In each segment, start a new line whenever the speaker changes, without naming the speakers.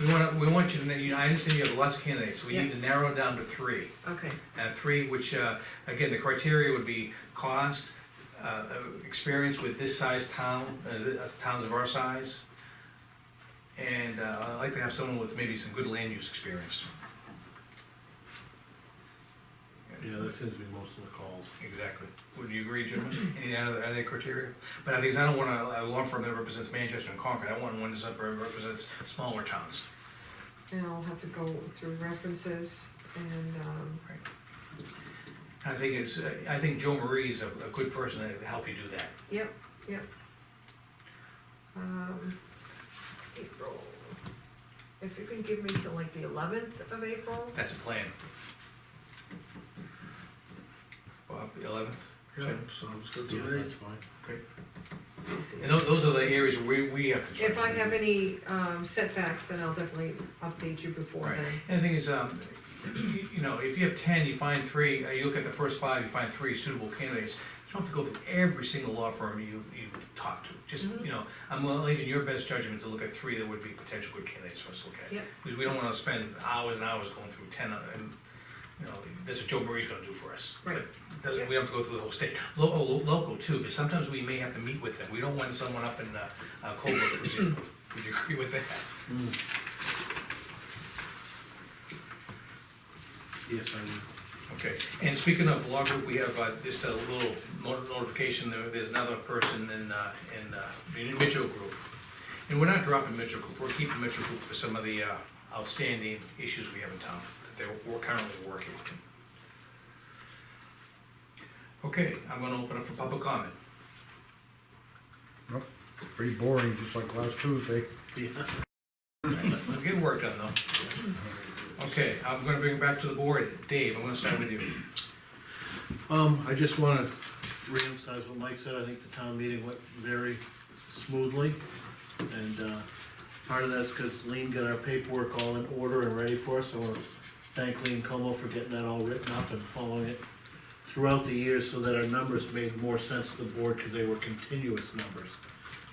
We want, we want you to, you know, I understand you have lots of candidates, we
Yeah.
need to narrow it down to three.
Okay,
Uh, three, which, uh, again, the criteria would be cost, uh, uh, experience with this size town, uh, th- uh, towns of our size. And, uh, I'd like to have someone with maybe some good land use experience.
Yeah, that seems to be most of the calls.
Exactly. Would you agree, Jim? Any other, other criteria? But I think, I don't want a, a law firm that represents Manchester and Concord, I want one that represents smaller towns.
and I'll have to go through references and, um,
I think it's, uh, I think Joe Marie is a, a good person to help you do that.
yep, yep. Um, April, if you can give me till like the eleventh of April,
That's a plan. Bob, the eleventh,
Yeah,
Sure.
sounds good
Yeah,
to me.
that's
I'll see.
and those, those are the areas where we have to.
If I have any, um, setbacks, then I'll definitely update you before
Right,
then.
and the thing is, um, you, you know, if you have ten, you find three, uh, you look at the first five, you find three suitable candidates. You don't have to go through every single law firm you, you talk to, just,
Mhm.
you know, I'm leaving your best judgment to look at three that would be potential good candidates for us to look at.
Yep.
Because we don't wanna spend hours and hours going through ten, of- and, you know, that's what Joe Murray's gonna do for us.
Right.
But Doesn't, we don't have to go through the whole state, local, local too, because sometimes we may have to meet with them, we don't want someone up in, uh, uh, Colbrook, for example, would you agree with that?
Yes, I would.
Okay, and speaking of law group, we have uh, this uh, little no- notification, there- there's another person in, uh, in uh, the Mitchell Group. And we're not dropping Mitchell Group, we're keeping Mitchell Group for some of the uh, outstanding issues we have in town that they're, we're currently working. Okay, I'm gonna open up for public comment.
Nope, pretty boring, just like last Tuesday.
Yeah.
We'll get work done though. Okay, I'm gonna bring it back to the board. Dave, I'm gonna start with you.
Um, I just wanna reemphasize what Mike said, I think the town meeting went very smoothly. And, uh, part of that's cause Lean got our paperwork all in order and ready for us, so I wanna thank Lean Como for getting that all written up and following it throughout the years so that our numbers made more sense to the board, cause they were continuous numbers.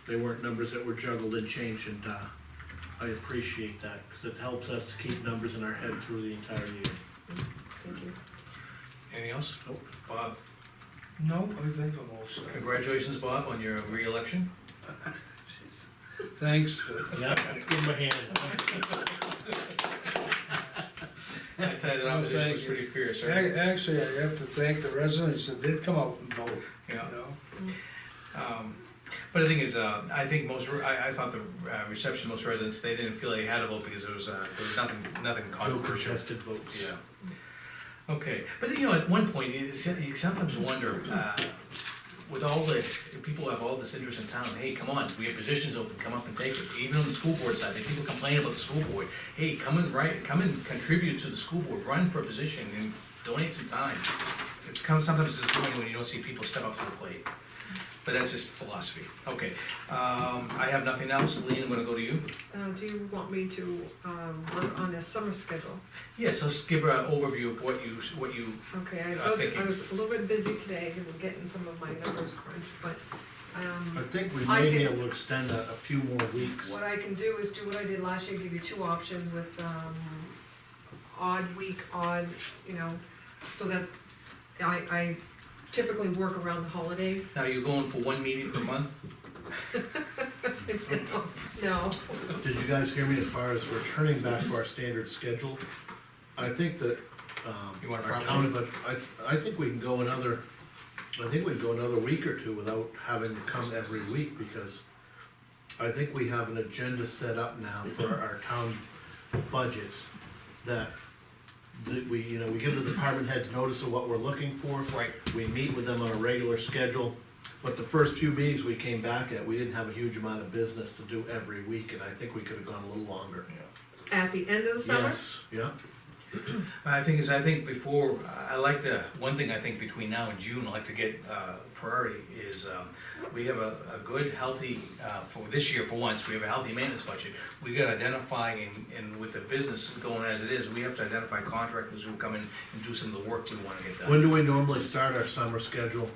They weren't numbers that were juggled and changed, and, uh, I appreciate that, cause it helps us to keep numbers in our head through the entire year.
Thank you.
Anything else?
Nope.
Bob,
No, I think I'm all set.
congratulations, Bob, on your reelection.
Thanks.
Yeah, let's give him a hand.
I tell you, the
No,
opposition
thank
was
you.
pretty fierce,
Ac-
right?
Actually, I have to thank the residents that did come out and vote, you
Yeah.
know?
Um, But the thing is, uh, I think most, re- I, I thought the uh, reception, most residents, they didn't feel they had a vote because there was, uh, there was nothing, nothing
No
controversial.
contested votes.
Yeah. Okay, but you know, at one point, you s- you sometimes wonder, uh, with all the, people have all this interest in town, hey, come on, we have positions open, come up and take it. Even on the school board side, the people complain about the school board, hey, come and write, come and contribute to the school board, run for a position and donate some time. It's come, sometimes disappointing when you don't see people step up to the plate, but that's just philosophy. Okay, um, I have nothing else, Lean, I'm gonna go to you.
Uh, do you want me to, um, work on a summer schedule?
Yes, let's give her an overview of what you, what you,
Okay, I
Uh,
was,
thank you.
I was a little bit busy today, and we're getting some of my numbers crunched, but,
I
um,
think we
I
may
can-
be able to extend a, a few more weeks.
what I can do is do what I did last year, give you two options with, um, odd week, odd, you know, so that I, I typically work around the holidays.
now you're going for one meeting per month?
No,
Did you guys hear me as far as returning back to our standard schedule? I think that, um,
You
our
want a front
town, but I, I think we can go another, I think we can go another week or two without having to come every week, because I think we have an agenda set up now for our town budgets, that, that we, you know, we give the department heads notice of what we're looking for.
Right.
We meet with them on a regular schedule, but the first few meetings we came back at, we didn't have a huge amount of business to do every week, and I think we could have gone a little longer.
at the end of the summer,
Yes, yeah,
I think is, I think before, I like to, one thing I think between now and June, I like to get uh, priority is, um, we have a, a good, healthy, uh, for this year for once, we have a healthy maintenance budget. We gotta identify and, and with the business going as it is, we have to identify contractors who come in and do some of the work we wanna get
when
done.
do we normally start our summer schedule?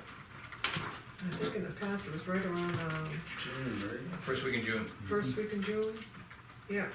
I think in the past it was right around, um,
First week in June,
first week in June, yeah,